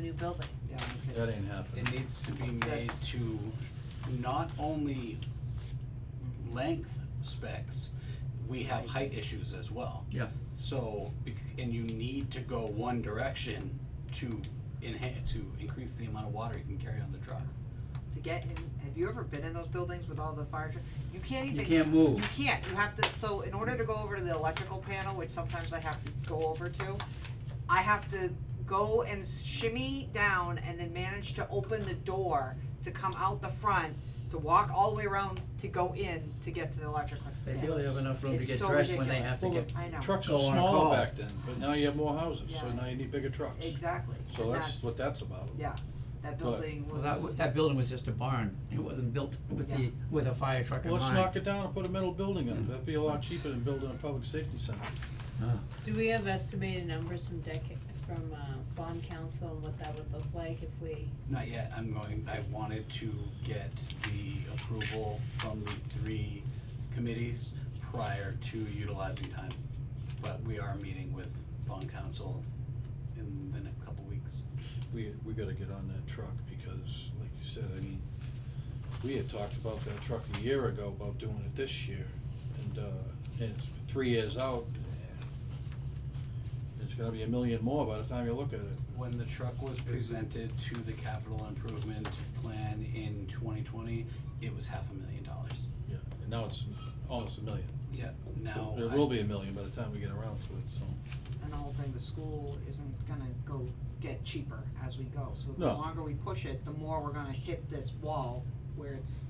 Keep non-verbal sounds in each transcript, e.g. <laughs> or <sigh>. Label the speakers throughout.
Speaker 1: new building.
Speaker 2: Yeah,
Speaker 3: That
Speaker 2: okay.
Speaker 3: ain't happening.
Speaker 4: It needs to be made
Speaker 2: That's-
Speaker 4: to not only length specs, we have height issues as well.
Speaker 3: Yeah.
Speaker 4: So, bec- and you need to go one direction to enhance, to increase the amount of water you can carry on the truck.
Speaker 2: To get in, have you ever been in those buildings with all the fire truck? You can't even.
Speaker 3: You can't move.
Speaker 2: You can't, you have to, so in order to go over to the electrical panel, which sometimes I have to go over to, I have to go and shimmy down and then manage to open the door to come out the front, to walk all the way around to go in to get to the electrical
Speaker 5: They
Speaker 2: panel.
Speaker 5: barely have enough room to
Speaker 2: It's
Speaker 5: get
Speaker 2: so
Speaker 5: dressed when they
Speaker 2: ridiculous.
Speaker 5: have to
Speaker 3: Well,
Speaker 5: get,
Speaker 2: I know.
Speaker 3: Trucks
Speaker 5: Go
Speaker 3: were
Speaker 5: on a
Speaker 3: small
Speaker 5: call.
Speaker 3: back then, but now you have more houses, so
Speaker 2: Yeah,
Speaker 3: now you need bigger trucks.
Speaker 2: Exactly.
Speaker 3: So
Speaker 2: and
Speaker 3: that's what that's about.
Speaker 2: Yeah, that building
Speaker 5: well, that,
Speaker 2: was,
Speaker 5: w- that building was just a barn, it wasn't built with the,
Speaker 2: Yeah.
Speaker 5: with a fire truck in
Speaker 3: Well,
Speaker 5: mind. Mm.
Speaker 3: let's knock it down and put a metal building in, that'd be a lot cheaper than building a public safety center.
Speaker 5: Ah.
Speaker 1: Do we have estimated numbers from decade, from, uh, bond council and what that would look like if we,
Speaker 4: Not yet, I'm going, I wanted to get the approval from the three committees prior to utilizing time. But we are meeting with bond council in the next couple weeks.
Speaker 3: We, we gotta get on that truck, because like you said, I mean, we had talked about that truck a year ago, about doing it this year, and, uh, and it's three years out. and It's gonna be a million more by the time you look at it.
Speaker 4: When the truck was presented to the capital improvement plan in twenty twenty, it was half a million dollars.
Speaker 3: Yeah, and now it's almost a million.
Speaker 4: Yeah. Now.
Speaker 3: It
Speaker 4: I-
Speaker 3: will be a million by the time we get around to it, so.
Speaker 2: and the whole thing, the school isn't gonna go get cheaper as we go, so the
Speaker 3: No.
Speaker 2: longer we push it, the more we're gonna hit this wall where it's,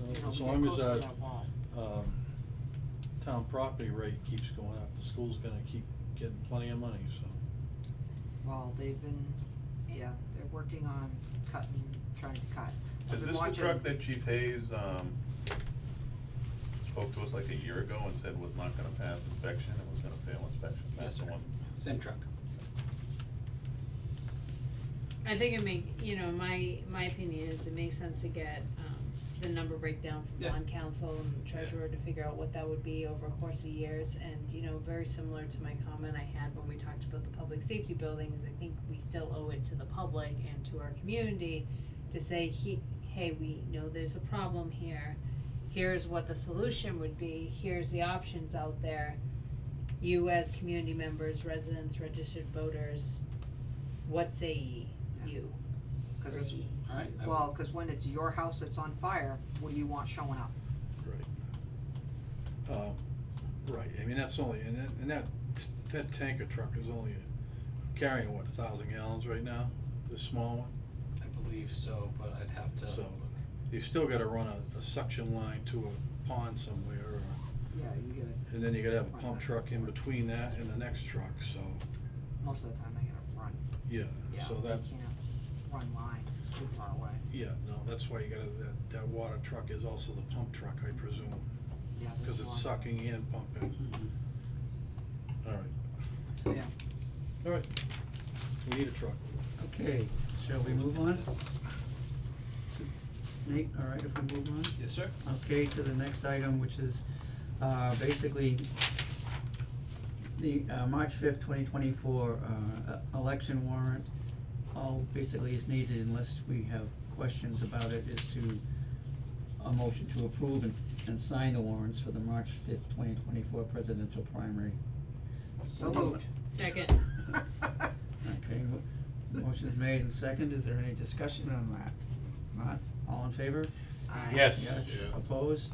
Speaker 2: you know,
Speaker 3: As uh,
Speaker 2: we
Speaker 3: long
Speaker 2: get closer
Speaker 3: as
Speaker 2: to
Speaker 3: our,
Speaker 2: that wall.
Speaker 3: um, town property rate keeps going up, the school's gonna keep getting plenty of money, so.
Speaker 2: Well, they've been, yeah, they're working on cutting, trying to cut. I've
Speaker 6: Is
Speaker 2: been
Speaker 6: this the
Speaker 2: watching-
Speaker 6: truck that Chief Hayes, um, spoke to us like a year ago and said was not gonna pass inspection and was gonna fail inspection?
Speaker 4: Yes,
Speaker 6: That's the
Speaker 4: sir.
Speaker 6: one.
Speaker 4: Same truck.
Speaker 1: I think it make, you know, my, my opinion is it makes sense to get, um, the number breakdown from
Speaker 4: Yeah.
Speaker 1: bond council and treasurer to figure out what that would be over a course of years, and, you know, very similar to my comment I had when we talked about the public safety buildings, I think we still owe it to the public and to our community to say, he, hey, we know there's a problem here, here's what the solution would be, here's the options out there. You as community members, residents, registered voters, what say ye, you?
Speaker 2: 'cause it's-
Speaker 1: Ricky.
Speaker 4: Alright. I will-
Speaker 2: well, cause when it's your house that's on fire, what do you want showing up?
Speaker 3: Right. Um, right, I mean, that's only, and that, and that, t- that tanker truck is only carrying, what, a thousand gallons right now? The small one?
Speaker 4: I believe so, but I'd have to
Speaker 3: So-
Speaker 4: look.
Speaker 3: You've still gotta run a, a suction line to a pond somewhere, or,
Speaker 2: Yeah, you get it,
Speaker 3: and then you gotta have a pump truck in between that and the next truck, so,
Speaker 2: most of the time they gotta run,
Speaker 3: yeah,
Speaker 2: yeah,
Speaker 3: so
Speaker 2: they
Speaker 3: that,
Speaker 2: can't run lines, it's too far away,
Speaker 3: yeah, no, that's why you gotta, that, that water truck is also the pump truck, I presume,
Speaker 2: yeah, there's
Speaker 3: cause
Speaker 2: a
Speaker 3: it's
Speaker 2: lot.
Speaker 3: sucking and pumping.
Speaker 4: Mm-hmm.
Speaker 3: Alright,
Speaker 2: So, yeah.
Speaker 3: alright, we need a truck.
Speaker 5: Okay, shall we move on? Nate, all right, if we move on?
Speaker 4: Yes, sir.
Speaker 5: Okay, to the next item, which is, uh, basically the, uh, March fifth, twenty twenty-four, uh, e- election warrant. All basically is needed unless we have questions about it, is to, a motion to approve and, and sign the warrants for the March fifth, twenty twenty-four presidential primary.
Speaker 2: So
Speaker 6: <laughs>
Speaker 2: moved.
Speaker 1: Second.
Speaker 5: Okay, mo- motion's made and second, is there any discussion on that? Not, all in favor?
Speaker 2: Aye.
Speaker 3: Yes.
Speaker 5: Yes,
Speaker 6: Yeah.
Speaker 5: opposed,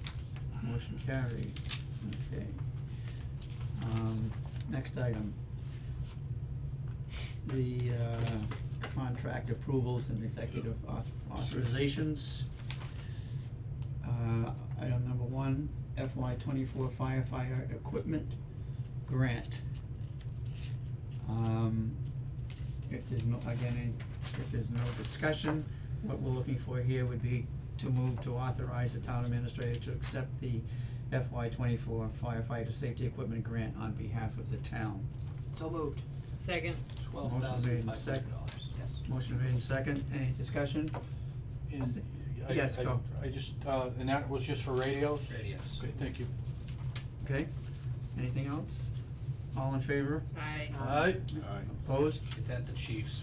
Speaker 5: motion carried, okay. Um, next item. The, uh, contract approvals and executive auth- authorizations. Uh, item number one, FY twenty-four firefighter equipment grant. Um, if there's no, again, any- if there's no discussion, what we're looking for here would be to move to authorize the town administrator to accept the FY twenty-four firefighter safety equipment grant on behalf of the town.
Speaker 2: So moved,
Speaker 1: Second.
Speaker 4: Twelve
Speaker 5: made
Speaker 4: thousand
Speaker 5: in
Speaker 4: five hundred dollars.
Speaker 2: yes.
Speaker 5: Motion made in second, any discussion?
Speaker 3: And I,
Speaker 5: Yes,
Speaker 3: I,
Speaker 5: go.
Speaker 3: I just, uh, and that was just for radios?
Speaker 4: Radios.
Speaker 3: Okay, thank you.
Speaker 5: Okay, anything else? All in favor?
Speaker 1: Aye.
Speaker 3: Aye.
Speaker 5: Opposed?
Speaker 4: It's at the chief's